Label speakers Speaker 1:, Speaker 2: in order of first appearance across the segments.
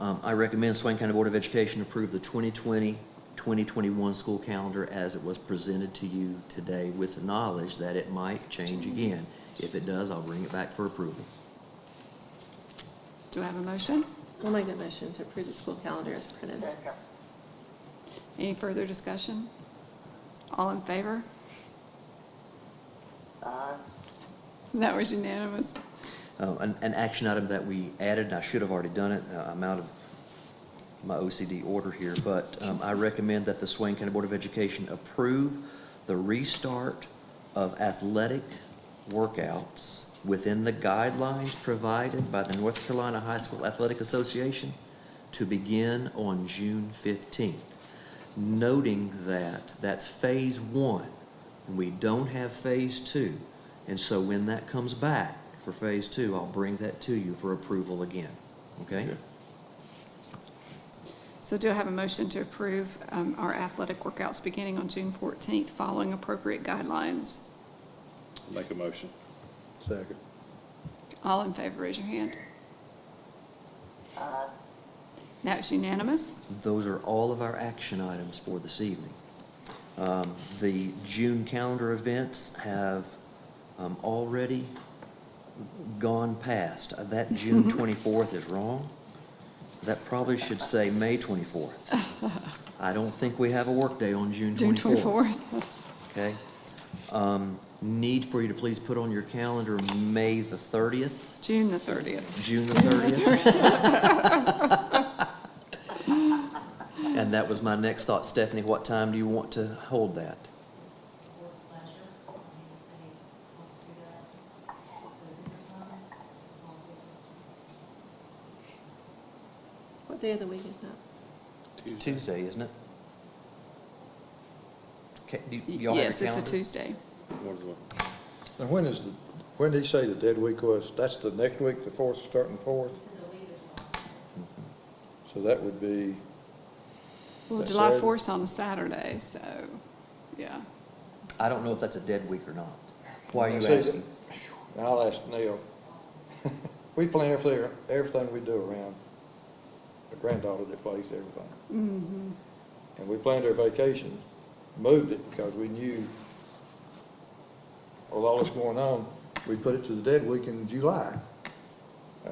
Speaker 1: Um, I recommend Swain County Board of Education approve the 2020, 2021 school calendar as it was presented to you today with the knowledge that it might change again. If it does, I'll bring it back for approval.
Speaker 2: Do I have a motion?
Speaker 3: I'll make the motion to approve the school calendar as printed.
Speaker 2: Any further discussion? All in favor? That was unanimous.
Speaker 1: Uh, An, an action item that we added, and I should have already done it, uh, I'm out of my OCD order here, but um, I recommend that the Swain County Board of Education approve the restart of athletic workouts within the guidelines provided by the North Carolina High School Athletic Association to begin on June fifteenth noting that that's phase one, and we don't have phase two. And so when that comes back for phase two, I'll bring that to you for approval again, okay?
Speaker 2: So do I have a motion to approve um, our athletic workouts beginning on June 14th, following appropriate guidelines?
Speaker 4: Make a motion.
Speaker 5: Second.
Speaker 2: All in favor, raise your hand.
Speaker 3: Uh.
Speaker 2: That was unanimous.
Speaker 1: Those are all of our action items for this evening. Um, The June calendar events have um, already gone past. Uh, That June 24th is wrong. That probably should say May 24th. I don't think we have a workday on June 24th.
Speaker 2: June 24th.
Speaker 1: Okay. Um, Need for you to please put on your calendar May the 30th,
Speaker 2: June the 30th.
Speaker 1: June the 30th. And that was my next thought. Stephanie, what time do you want to hold that?
Speaker 6: Board's pleasure, I mean, if they want to do that, at a different time, it's all good.
Speaker 3: What day of the week is that?
Speaker 1: It's Tuesday, isn't it? Okay, do y-
Speaker 2: Y-
Speaker 1: y'all have your
Speaker 2: Yes, it's
Speaker 1: calendar?
Speaker 2: a Tuesday.
Speaker 4: Wonderful.
Speaker 5: Now, when is, the when did he say the dead week was? That's the next week, the fourth, starting fourth?
Speaker 6: So the week is,
Speaker 5: So that would be,
Speaker 2: Well,
Speaker 5: That's
Speaker 2: July
Speaker 5: Saturday.
Speaker 2: 4th's on a Saturday, so, yeah.
Speaker 1: I don't know if that's a dead week or not. Why are you
Speaker 5: See,
Speaker 1: asking?
Speaker 5: I'll ask Neil. We plan everything, everything we do around my granddaughter that plays everything.
Speaker 2: Mhm.
Speaker 5: And we planned our vacation, moved it because we knew with all this going on, we put it to the dead week in July. Uh,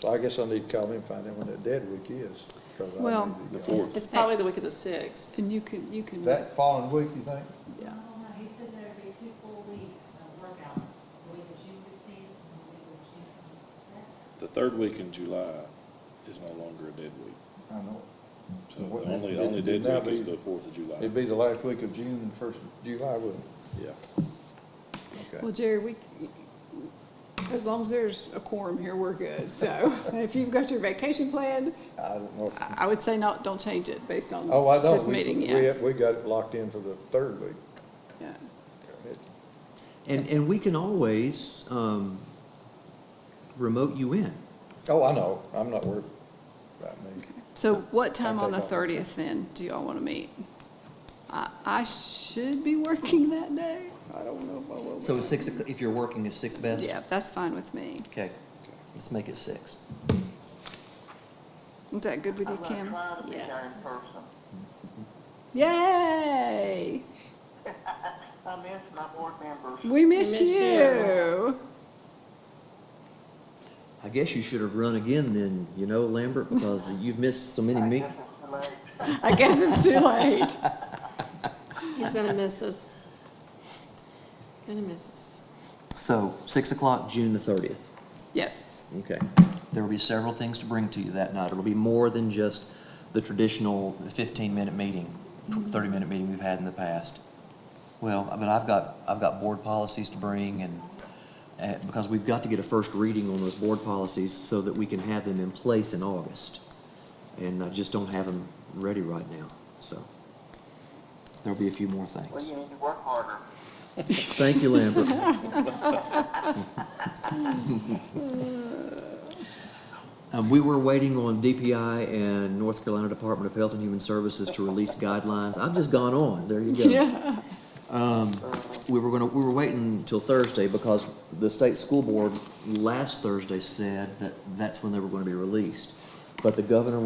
Speaker 5: So I guess I need to call him and find out when that dead week is. 'cause I
Speaker 2: Well-
Speaker 5: need to
Speaker 4: The
Speaker 5: go.
Speaker 4: fourth.
Speaker 3: It's probably the week of the sixth.
Speaker 2: And you can, you can.
Speaker 5: That following week, you think?
Speaker 2: Yeah.
Speaker 6: oh, no, he said there'd be two full weeks of workouts, the week of June fifteenth and the week of June twenty-second.
Speaker 4: The third week in July is no longer a dead week.
Speaker 5: I know.
Speaker 4: So the only, only dead week is the fourth of July.
Speaker 5: It'd be the last week of June and first of July, wouldn't
Speaker 4: Yeah.
Speaker 5: it?
Speaker 2: Well,
Speaker 5: Okay.
Speaker 2: Jerry, we, as long as there's a quorum here, we're good. So if you've got your vacation planned,
Speaker 5: I don't know. if-
Speaker 2: I I would say not, don't change it based on
Speaker 5: Oh, I know.
Speaker 2: uh, this
Speaker 5: We-
Speaker 2: meeting,
Speaker 5: We,
Speaker 2: yeah.
Speaker 5: we got it locked in for the third week.
Speaker 2: Yeah.
Speaker 1: And, and we can always, um, remote you in.
Speaker 5: Oh, I know. I'm not worried about me.
Speaker 2: So what time on the
Speaker 5: Okay, go.
Speaker 2: 30th then do y'all want to meet? I, I should be working that day. I don't know if I will.
Speaker 1: So it's six, o'clock- if you're working, it's six best?
Speaker 2: Yeah, that's fine with me.
Speaker 1: Okay, let's make it six.
Speaker 2: Is that good with you,
Speaker 7: I'm gonna
Speaker 2: Kim?
Speaker 7: try to be
Speaker 3: Yeah.
Speaker 7: there in person.
Speaker 2: Yay!
Speaker 7: I miss my board members.
Speaker 2: We miss
Speaker 3: miss you.
Speaker 2: you.
Speaker 1: I guess you should have run again then, you know, Lambert, because you've missed so many
Speaker 7: I
Speaker 1: meetings.
Speaker 7: guess it's too late.
Speaker 2: I guess it's too late.
Speaker 3: He's gonna miss us. Gonna miss us.
Speaker 1: So, six o'clock, June the thirtieth.
Speaker 2: Yes.
Speaker 1: Okay. There will be several things to bring to you that night. It'll be more than just the traditional fifteen-minute meeting, thirty-minute meeting we've had in the past. Well, I mean, I've got, I've got board policies to bring and, uh, because we've got to get a first reading on those board policies so that we can have them in place in August. And I just don't have them ready right now, so. There'll be a few more things.
Speaker 7: Well, you need to work harder.
Speaker 1: Thank you, Lambert. Um, we were waiting on DPI and North Carolina Department of Health and Human Services to release guidelines. I've just gone on, there you go.
Speaker 2: Yeah,
Speaker 1: We were gonna, we were waiting until Thursday because the state school board last Thursday said that that's when they were gonna be released. but the governor